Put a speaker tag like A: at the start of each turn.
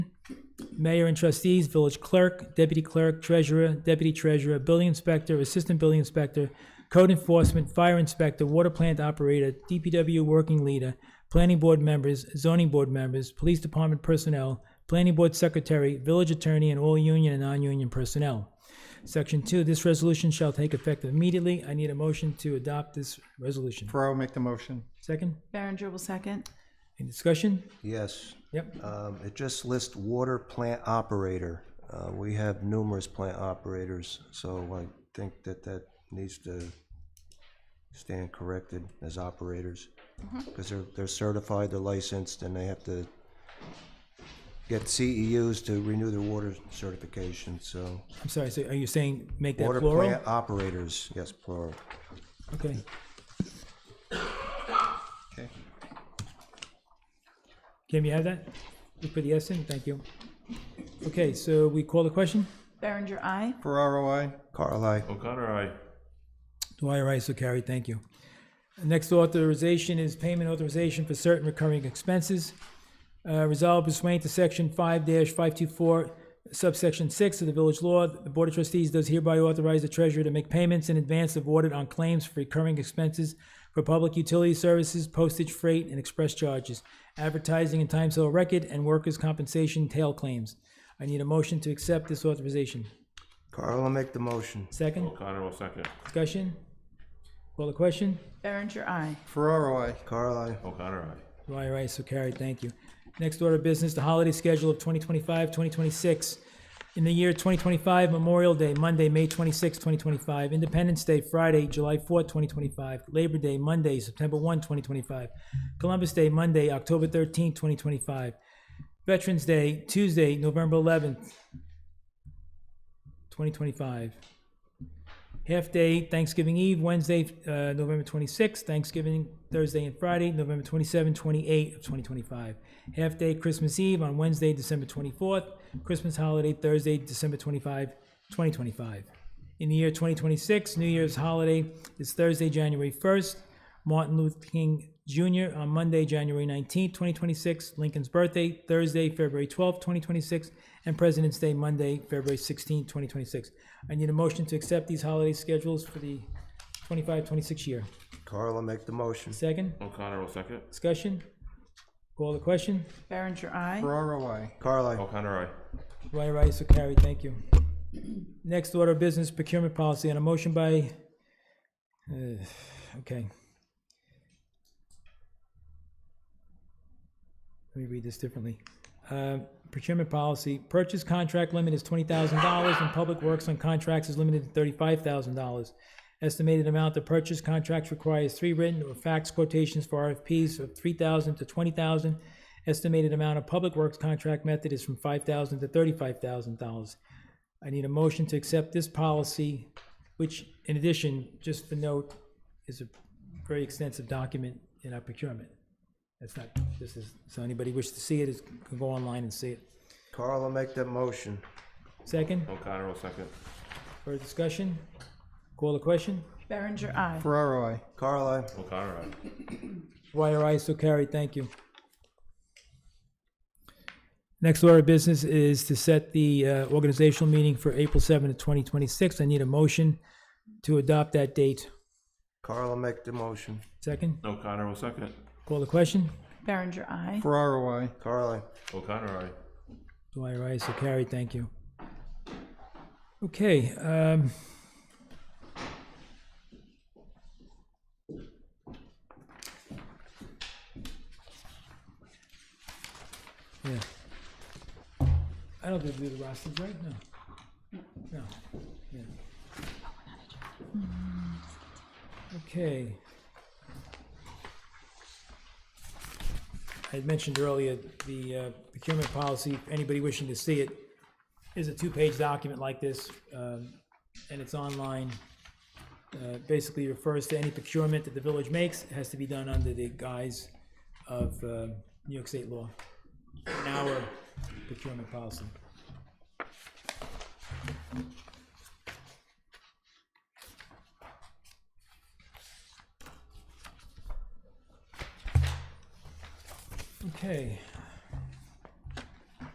A: mayor and trustees, village clerk, deputy clerk, treasurer, deputy treasurer, building inspector, assistant building inspector, code enforcement, fire inspector, water plant operator, DPW working leader, planning board members, zoning board members, police department personnel, planning board secretary, village attorney, and all union and non-union personnel. Section two, this resolution shall take effect immediately. I need a motion to adopt this resolution.
B: Ferraro, make the motion.
A: Second,
C: Berenger will second.
A: any discussion?
D: Yes,
A: Yep,
D: um, it just lists water plant operator. Uh, we have numerous plant operators, so I think that that needs to stand corrected as operators. Because they're, they're certified, they're licensed, and they have to get CEUs to renew their water certification, so.
A: I'm sorry, so are you saying make that
D: Water
A: plural?
D: plant operators, yes, plural.
A: Okay,
B: Okay.
A: Kim, you have that? You put the S in, thank you. Okay, so we call the question?
C: Berenger, aye.
B: Ferraro, I.
D: Carl, I,
E: O'Connor, aye.
A: Dwyer, aye, so carried, thank you. Next authorization is payment authorization for certain recurring expenses. Uh, Resolved pursuant to section five five two four subsection six of the village law, the Board of Trustees does hereby authorize the treasurer to make payments in advance of audit on claims for recurring expenses for public utility services, postage, freight, and express charges, advertising and time sale record, and workers' compensation tail claims. I need a motion to accept this authorization.
D: Carl, I'll make the motion.
A: Second,
E: O'Connor will second.
A: discussion? Call the question?
C: Berenger, aye.
B: Ferraro, I.
D: Carl, I,
E: O'Connor, aye.
A: Dwyer, aye, so carried, thank you. Next order of business, the holiday schedule of 2025, 2026. In the year 2025, Memorial Day, Monday, May 26, 2025, Independence Day, Friday, July 4, 2025, Labor Day, Monday, September 1, 2025, Columbus Day, Monday, October 13, 2025, Veterans Day, Tuesday, November 11th, 2025. Half day Thanksgiving Eve, Wednesday, uh, November 26th, Thanksgiving Thursday and Friday, November 27, 28 of 2025. Half day Christmas Eve on Wednesday, December 24th, Christmas holiday Thursday, December 25, 2025. In the year 2026, New Year's holiday is Thursday, January 1st, Martin Luther King Jr. on Monday, January 19th, 2026, Lincoln's birthday Thursday, February 12th, 2026, and President's Day Monday, February 16th, 2026. I need a motion to accept these holiday schedules for the 25-26 year.
D: Carl, I'll make the motion.
A: Second,
E: O'Connor will second.
A: discussion? Call the question?
C: Berenger, aye.
B: Ferraro, I.
D: Carl, I,
E: O'Connor, aye.
A: Dwyer, aye, so carried. Thank you. Next order of business procurement policy and a motion by, uh, okay. Let me read this differently. Uh, Procurement policy, purchase contract limit is twenty thousand dollars and public works on contracts is limited to thirty-five thousand dollars. Estimated amount of purchase contracts requires three written or fax quotations for RFPs of three thousand to twenty thousand. Estimated amount of public works contract method is from five thousand to thirty-five thousand dollars. I need a motion to accept this policy, which in addition, just for note, is a very extensive document in our procurement. That's not, this is, so anybody wish to see it, is, can go online and see it.
D: Carl, I'll make that motion.
A: Second,
E: O'Connor will second.
A: further discussion? Call the question?
C: Berenger, aye.
B: Ferraro, I.
D: Carl, I.
E: O'Connor, aye.
A: Dwyer, aye, so carried, thank you. Next order of business is to set the uh, organizational meeting for April seventh, twenty twenty-six. I need a motion to adopt that date.
D: Carl, I'll make the motion.
A: Second,
E: O'Connor will second.
A: call the question?
C: Berenger, aye.
B: Ferraro, I.
D: Carl, I.
E: O'Connor, aye.
A: Dwyer, aye, so carried, thank you. Okay, um. Yeah. I don't think we do the rosters, right? No. No. Yeah. Okay. I had mentioned earlier, the uh, procurement policy, if anybody wishing to see it, is a two-page document like this, um, and it's online. Uh, Basically refers to any procurement that the village makes, it has to be done under the guise of uh, New York State law, and our procurement policy. Okay.